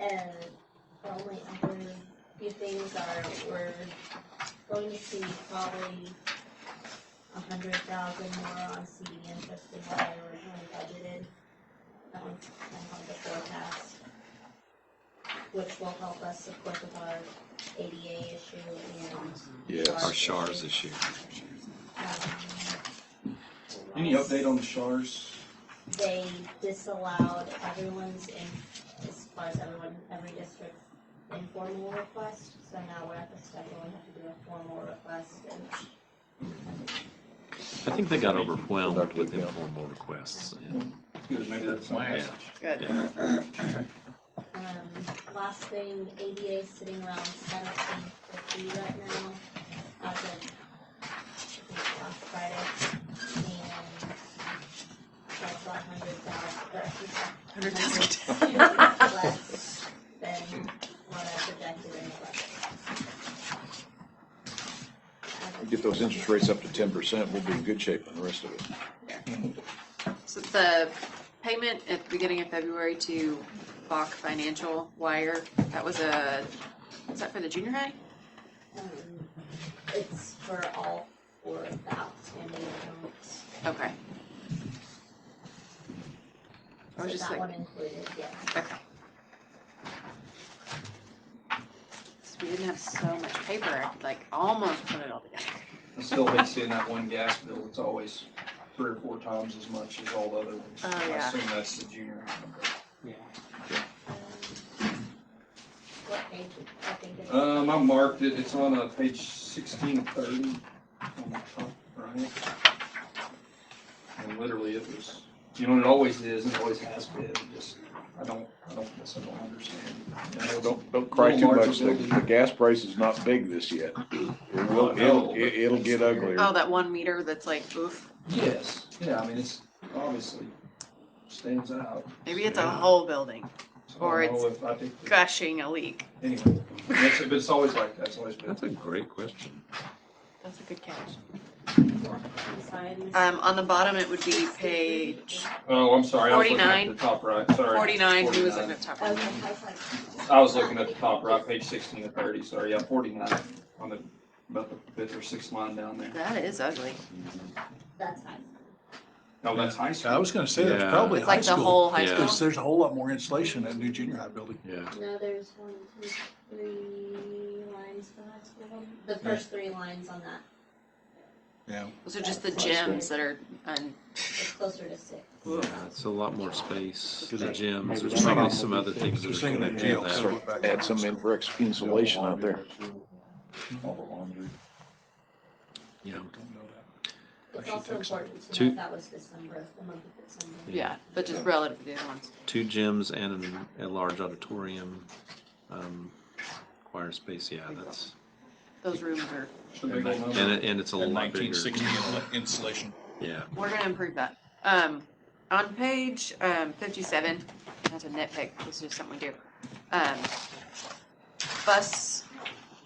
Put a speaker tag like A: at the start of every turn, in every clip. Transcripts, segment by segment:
A: and probably other few things are, we're going to see probably a hundred thousand more on CD interest than what I originally budgeted. That one's kind of on the forecast, which will help us support with our ADA issue and.
B: Our
A: Yes.
B: SHARs issue.
A: um,
C: Any
A: lots.
C: update on the Shars?
A: they disallowed everyone's in, as far as everyone, every district's informal request, so now we're at the step where we have to do a formal request and.
D: I think they got overwhelmed with informal requests. yeah.
C: Good, to make that something.
D: Yeah.
E: Good.
A: Um, last thing, ADA is sitting around seventeen fifty right now, as of, I think, last Friday, and that's about hundred thousand, or
E: Hundred thousand.
A: less than what I projected in the budget.
B: Get those interest rates up to ten percent, we'll be in good shape on the rest of it.
E: So the payment at the beginning of February to Bach Financial Wire, that was a, was that for the junior high?
A: Um, It's for all four of the outstanding accounts.
E: Okay. I was
A: So
E: just
A: That
E: like,
A: one included, yes.
E: okay. 'Cause we didn't have so much paper, I could like almost put it all together.
C: I still hate seeing that one gas bill, it's always three or four times as much as all the other ones.
E: Oh,
C: I
E: yeah.
C: assume that's the junior.
A: Um, What page, I think it's.
C: Um, I marked it, it's on, uh, page sixteen thirty, on the top right. And literally it was, you know, and it always is, and it always has been, it just, I don't, I don't, guess I don't understand. You know,
F: Don't, don't cry too
C: Little
F: much. The,
C: marginal.
F: the gas price is not big this yet. It will, it'll, it- it'll get uglier.
E: Oh, that one meter that's like, oof,
C: Yes, yeah, I mean, it's obviously stands out.
E: maybe it's a whole building
C: So I
E: Or
C: don't
E: it's
C: know if I think that-
E: gushing a leak.
C: Anyway, it's, but it's always like that, it's always been.
D: That's a great question.
E: That's a good catch.
A: I'm sorry, I missed-
E: Um, on the bottom, it would be page
C: Oh, I'm sorry, I was looking at
E: 49.
C: the top right, sorry.
E: forty-nine, who was in the
C: 49.
E: top
A: Okay, I
E: right?
A: was like-
C: I was looking at the top right, page sixteen to thirty, sorry, yeah, forty-nine, on the, about the fifth or sixth line down there.
E: That is ugly.
A: That's fine.
C: No, that's high
G: I
C: school.
G: was gonna say, that's
D: Yeah.
G: probably
E: It's
G: high
E: like the
G: school,
E: whole high
D: Yeah.
G: because
E: school.
G: there's a whole lot more insulation in that new junior high building.
D: Yeah.
A: No, there's one, two, three lines for high school. building. The first three lines on that,
E: Those are just the gyms that are, un
A: it's closer to six.
D: Yeah, it's a lot more space, the gyms,
F: maybe
D: there's
F: they're
D: probably
F: not-
D: some other things
G: They're
D: that are
G: singing that
D: connected to
G: deal,
D: that.
G: so-
F: Start- Add some in for ex- insulation out there.
D: Yeah.
A: It's
G: Actually
A: also
G: takes
A: important to
D: two-
A: note that was December, the month of December.
E: yeah, but just relative to the other ones.
D: Two gyms and an- a large auditorium, um, choir space, yeah, that's,
E: Those rooms are,
C: It's a big old number.
D: and it, and it's a lot
H: Nineteen
D: bigger.
H: sixty insulation.
D: Yeah,
E: we're gonna improve that. Um, on page, um, fifty-seven, that's a nitpick, this is just something we do. Um, bus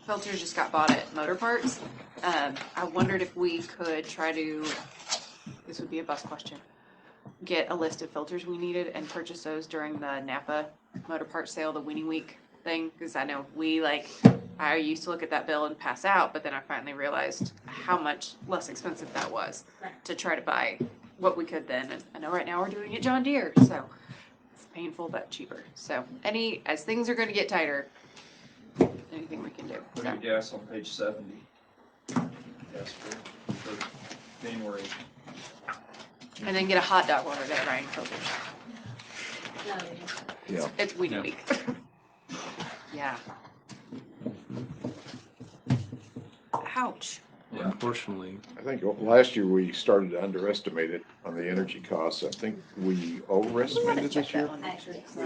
E: filters just got bought at Motor Parts. Um, I wondered if we could try to, this would be a bus question, get a list of filters we needed and purchase those during the Napa Motor Parts sale, the winning week thing, because I know we like, I used to look at that bill and pass out, but then I finally realized how much less expensive that was to try to buy what we could then. And I know right now we're doing it John Deere, so it's painful but cheaper. So any, as things are gonna get tighter, anything we can do.
C: Put
E: So-
C: your gas on page seventy. Yes, for, for January.
E: And then get a hot dog order that Ryan filters.
A: No, you're just-
E: It's week
D: Yeah.
E: week. Yeah. Ouch.
D: unfortunately,
F: I think last year we started to underestimate it on the energy costs. I think we overestimated this year.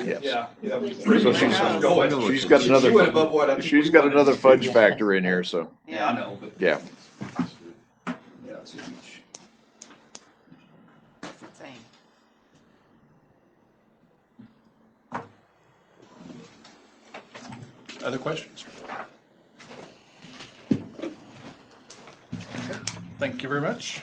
F: Yes.
C: Yeah. Yeah.
F: So she's-
D: she's-
F: She's got
C: She went
F: another,
C: above what I think
F: she's
C: we
F: got
C: wanted.
F: another fudge factor in here, so,
C: Yeah, I know, but.
F: yeah.
C: Yeah, it's a huge.
E: That's insane.
G: Other questions? Thank you very much.